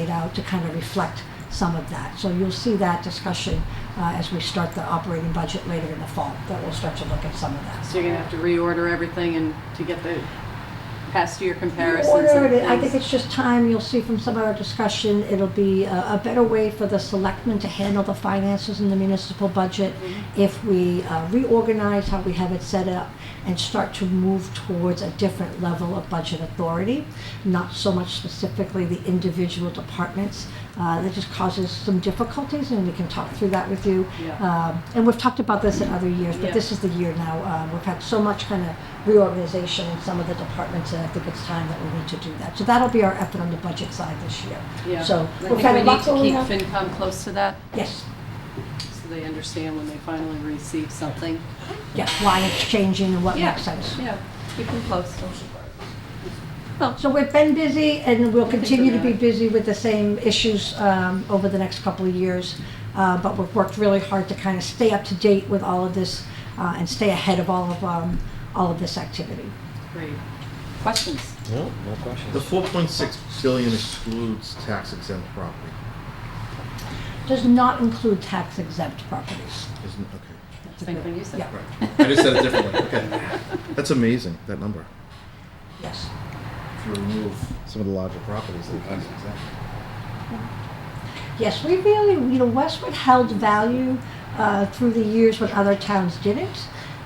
to kind of reflect some of that. So you'll see that discussion uh, as we start the operating budget later in the fall, that we'll start to look at some of that. So you're gonna have to reorder everything and to get the past year comparisons and Order it. I think things. it's just time, you'll see from some of our discussion, it'll be a, a better way for the selectmen to handle the finances in the municipal budget if we uh, reorganize how we have it set up and start to move towards a different level of budget authority, not so much specifically the individual departments. Uh, that just causes some difficulties, and we can talk through that with you. Yeah. Um, and we've talked about this in other years, but Yeah. this is the year now. Um, we've had so much kind of reorganization in some of the departments, and I think it's time that we need to do that. So that'll be our effort on the budget side this year. Yeah. So I we've had a lot think we going need on. to keep FinCom close to that, Yes, so they understand when they finally receive something. yes, why it's changing and what Yeah. makes sense. Yeah, keep them close. So we've been busy and we'll Thanks for continue to be that. busy with the same issues um, over the next couple of years. Uh, But we've worked really hard to kind of stay up to date with all of this uh, and stay ahead of all of, um, all of this activity. Great. Questions? No, no The questions. four point six billion excludes tax exempt property, Does not include tax exempt properties. isn't it? Same thing you said. Yeah. Okay, right. I just said it differently. Okay, that's amazing. That number. Yes. If you remove some of the larger properties that are tax exempt. Yes, we really, you know, Westwood held value uh, through the years when other towns didn't.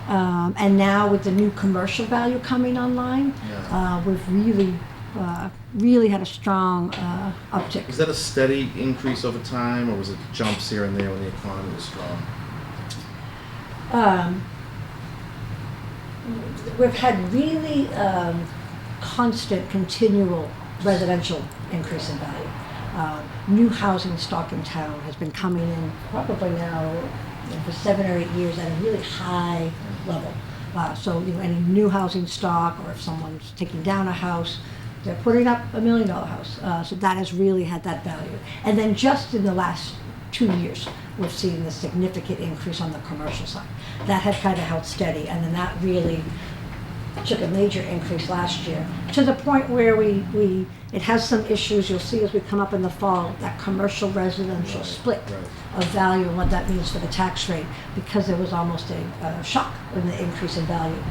Um, and now with the new commercial value coming online, Yeah. uh, we've really, uh, really had a strong uh, Was uptick. that a steady increase over time, or was it jumps here and there when the economy was strong? Um, we've had really um, constant, continual residential increase in value. Uh, new housing stock in town has been coming in probably now you know, for seven or eight years at a really high level. Uh, so, you know, any new housing stock, or if someone's taking down a house, they're putting up a million dollar house. Uh, so that has really had that value. And then just in the last two years, we've seen the significant increase on the commercial side. That had kind of held steady, and then that really took a major increase last year, to the point where we, we, it has some issues, you'll see as we come up in the fall, that commercial residential Right, split right. of value and what that means for the tax rate, because there was almost a, uh shock when the increase in value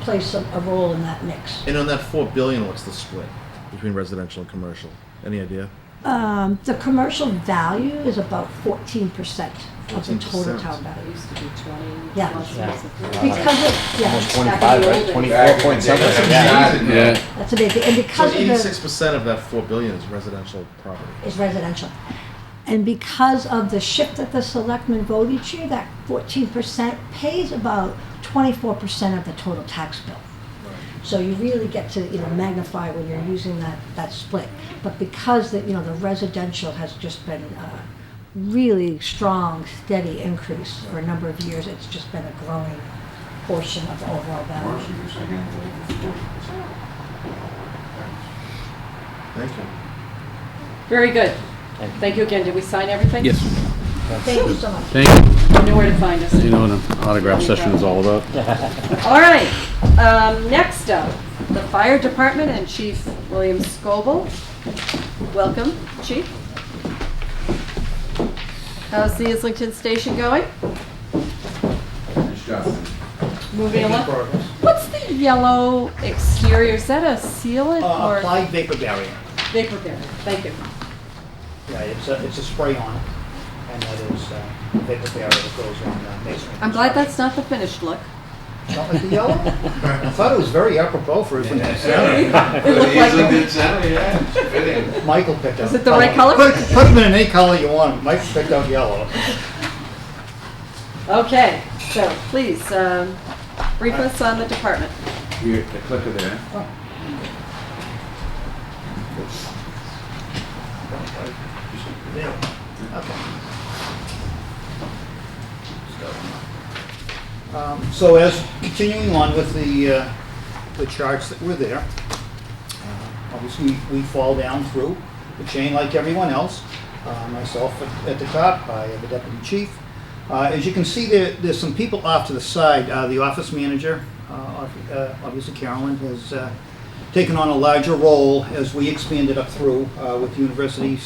plays a, a role in that mix. And on that four billion, what's the split between residential and commercial? Any idea? Um, the commercial value is about fourteen percent of the total 14%. town It value. used to be twenty. Yeah. plus Yeah. years ago. Because of, Almost yeah, twenty-five, right? Twenty-four point something. Yeah. Yeah. that's amazing, and So because of the. eighty-six percent of that four billion is residential property. is residential. And because of the shift that the selectmen vote each year, that fourteen percent pays about twenty-four percent of the total tax bill. So you really get to, you know, magnify when you're using that, that split. But because the, you know, the residential has just been uh really strong, steady increase for a number of years, it's just been a growing portion of the overall value. Thank you. Very good. Thank you. Thank you again. Did we sign everything? Yes, Thank you so much. thank you. You know where to find us. You know what an autograph session is all about? All right, um, next up, the fire department and Chief William Scobel. Welcome, Chief. How's the Islington station going? Moving along. What's the yellow exterior? Is that a sealant Uh, or? applied vapor barrier. Vapor barrier, thank you. Right, it's a, it's a spray on, and that is uh, vapor barrier that goes on uh, masonry. I'm glad that's not the finished look. Not like the yellow? I thought it was very apropos for it when it was- It looked like the- Michael picked out. Is it the right color? Put put them in any color you want, Michael picked out yellow. Okay, so please, um, brief us on the department. Here, the clicker there. Um, So as, continuing on with the, uh, the charts that were there, uh, obviously, we fall down through the chain like everyone else, Uh, myself at- at the top, I am the deputy chief. Uh, As you can see, there, there's some people off to the side, Uh, the office manager, uh, ob- uh, obviously Carolyn, has uh, taken on a larger role as we expanded up through uh, with university